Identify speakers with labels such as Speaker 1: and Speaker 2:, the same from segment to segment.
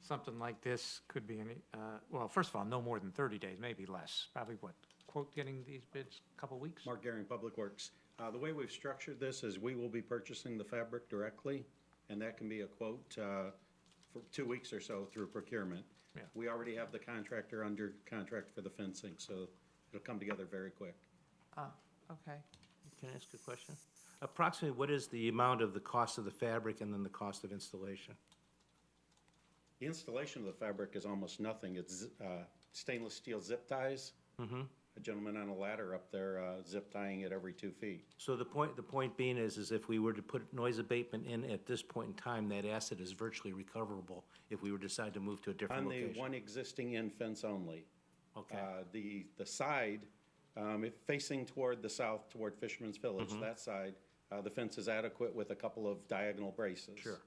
Speaker 1: something like this could be any, uh, well, first of all, no more than thirty days, maybe less, probably what, quote, getting these bids, a couple weeks?
Speaker 2: Mark Garing, Public Works. Uh, The way we've structured this is we will be purchasing the fabric directly, and that can be a quote uh, for two weeks or so through procurement.
Speaker 1: Yeah.
Speaker 2: We already have the contractor under contract for the fencing, so it'll come together very quick.
Speaker 1: Ah, okay.
Speaker 3: Can I ask a question? Approximately, what is the amount of the cost of the fabric and then the cost of installation?
Speaker 2: The installation of the fabric is almost nothing. It's uh, stainless steel zip ties. A gentleman on a ladder up there uh, zip tying it every two feet.
Speaker 3: So the point, the point being is, is if we were to put noise abatement in at this point in time, that asset is virtually recoverable if we were to decide to move to a different
Speaker 2: On the
Speaker 3: location.
Speaker 2: one existing end fence only.
Speaker 3: Okay.
Speaker 2: Uh, The, the side, um, if facing toward the south, toward Fisherman's Village,
Speaker 3: Mm-hmm.
Speaker 2: that side, uh, the fence is adequate with a couple of diagonal braces. Sure.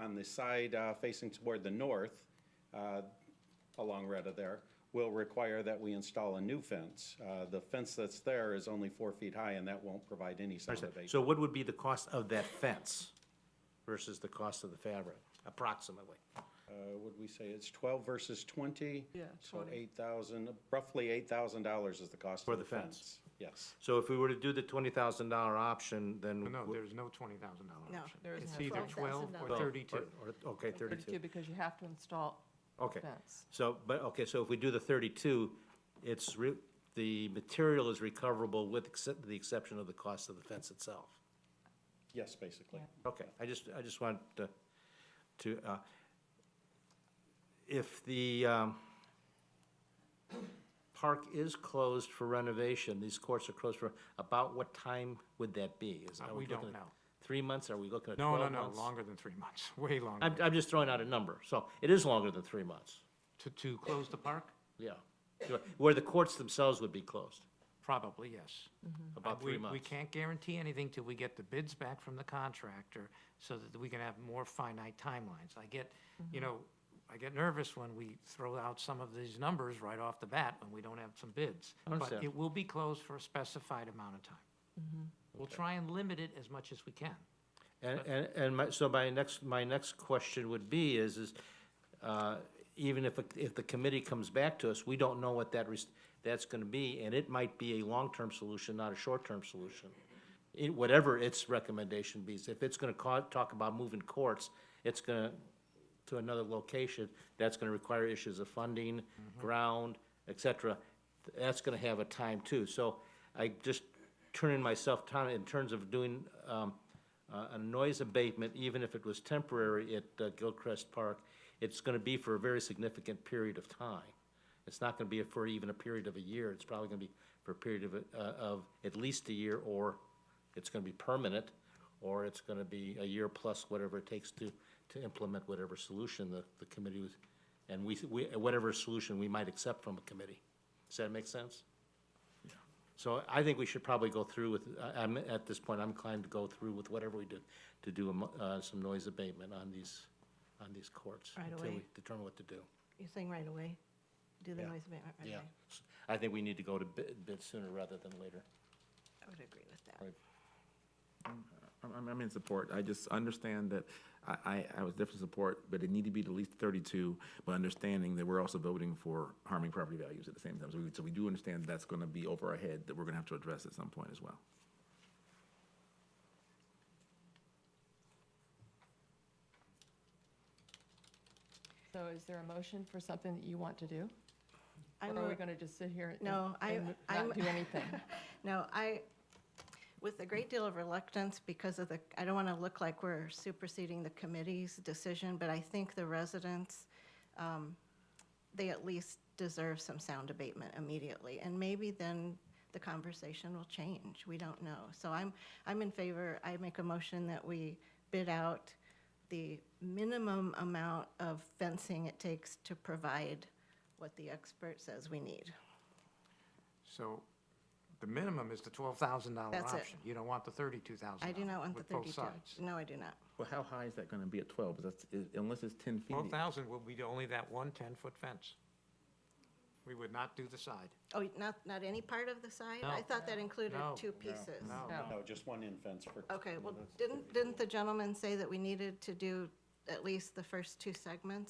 Speaker 2: On the side uh, facing toward the north, uh, along Retta there, will require that we install a new fence. Uh, The fence that's there is only four feet high, and that won't provide any sound abatement.
Speaker 3: So what would be the cost of that fence versus the cost of the fabric, approximately?
Speaker 2: Uh, Would we say it's 12 versus 20?
Speaker 4: Yeah,
Speaker 2: So
Speaker 4: 20.
Speaker 2: 8,000, roughly $8,000 is the cost
Speaker 3: For
Speaker 2: of the
Speaker 3: the
Speaker 2: fence.
Speaker 3: fence.
Speaker 2: Yes.
Speaker 3: So if we were to do the twenty thousand dollar option, then.
Speaker 1: No,
Speaker 3: w-
Speaker 1: there's no twenty thousand dollar
Speaker 4: No,
Speaker 1: option.
Speaker 4: there isn't
Speaker 1: It's
Speaker 4: a
Speaker 1: either twelve
Speaker 4: $12,000.
Speaker 1: or
Speaker 3: Oh, or-
Speaker 1: thirty-two.
Speaker 3: or- Okay,
Speaker 4: Thirty-two,
Speaker 3: thirty-two,
Speaker 4: because you have to install
Speaker 3: okay.
Speaker 4: fence.
Speaker 3: So, but, okay, so if we do the thirty-two, it's re, the material is recoverable with except, the exception of the cost of the fence itself.
Speaker 2: Yes, basically.
Speaker 3: Okay, I just, I just want to, to, uh, if the, um, park is closed for renovation, these courts are closed for, about what time would that be? Is-
Speaker 1: Uh,
Speaker 3: are
Speaker 1: we don't
Speaker 3: looking at
Speaker 1: know.
Speaker 3: Three months, are we looking at
Speaker 1: No, no,
Speaker 3: twelve
Speaker 1: no,
Speaker 3: months?
Speaker 1: longer than three months, way longer.
Speaker 3: I'm, I'm just throwing out a number, so it is longer than three months,
Speaker 1: To, to close the park?
Speaker 3: yeah. Where the courts themselves would be closed,
Speaker 1: Probably, yes.
Speaker 4: Mm-hmm.
Speaker 3: about
Speaker 1: We-
Speaker 3: three months.
Speaker 1: We can't guarantee anything till we get the bids back from the contractor so that we can have more finite timelines. I get, you
Speaker 5: Mm-hmm.
Speaker 1: know, I get nervous when we throw out some of these numbers right off the bat when we don't have some bids. But
Speaker 3: Understand.
Speaker 1: it will be closed for a specified amount of time.
Speaker 5: Mm-hmm.
Speaker 1: We'll try and limit it as much as we can.
Speaker 3: And, and, and my, so my next, my next question would be is, is, uh, even if, if the committee comes back to us, we don't know what that, res- that's gonna be, and it might be a long-term solution, not a short-term solution. It, whatever its recommendation be, if it's gonna ca- talk about moving courts, it's gonna, to another location, that's gonna require issues of funding, ground, et cetera. That's gonna have a time too, so I just turning myself down in terms of doing, um, uh, a noise abatement, even if it was temporary at uh, Gilchrist Park, it's gonna be for a very significant period of time. It's not gonna be for even a period of a year, it's probably gonna be for a period of, uh, of at least a year, or it's gonna be permanent, or it's gonna be a year plus whatever it takes to, to implement whatever solution the, the committee was, and we, we, whatever solution we might accept from a committee. Does that make sense? So I think we should probably go through with, I- I'm, at this point, I'm inclined to go through with whatever we do, to do a mo- uh, some noise abatement on these, on these courts.
Speaker 5: Right
Speaker 3: Until we
Speaker 5: away.
Speaker 3: determine what to do.
Speaker 5: You're saying right away? Do the
Speaker 3: Yeah.
Speaker 5: noise abatement right away?
Speaker 3: Yeah. S- I think we need to go to bid, bid sooner rather than later.
Speaker 5: I would agree with that.
Speaker 3: Right.
Speaker 6: I'm- I'm, I'm in support. I just understand that I, I, I was definitely support, but it need to be at least thirty-two, but understanding that we're also voting for harming property values at the same time. So we, so we do understand that's gonna be over our head, that we're gonna have to address at some point as well.
Speaker 4: So is there a motion for something that you want to do?
Speaker 5: I
Speaker 4: Or are we
Speaker 5: move-
Speaker 4: going to just sit here and
Speaker 5: No, I-
Speaker 4: and
Speaker 5: I'm-
Speaker 4: not do anything?
Speaker 5: No, I, with a great deal of reluctance because of the, I don't want to look like we're superseding the committee's decision, but I think the residents, um, they at least deserve some sound abatement immediately. And maybe then the conversation will change. We don't know. So I'm, I'm in favor, I make a motion that we bid out the minimum amount of fencing it takes to provide what the expert says we need.
Speaker 1: So the minimum is the twelve thousand dollar
Speaker 5: That's it.
Speaker 1: option. You don't want the thirty-two thousand.
Speaker 5: I do not want the
Speaker 1: With both
Speaker 5: 32.
Speaker 1: sides.
Speaker 5: No, I do not.
Speaker 6: Well, how high is that gonna be at twelve? Because that's, i- unless it's ten feet.
Speaker 1: Twelve thousand will be only that one ten-foot fence. We would not do the side.
Speaker 5: Oh, not, not any part of the side? I
Speaker 1: No.
Speaker 5: thought that included
Speaker 1: No.
Speaker 5: two pieces.
Speaker 1: No.
Speaker 2: No, just one end fence
Speaker 5: Oh,
Speaker 2: for.
Speaker 5: Okay, well, didn't, didn't the gentleman say that we needed to do at least the first two segments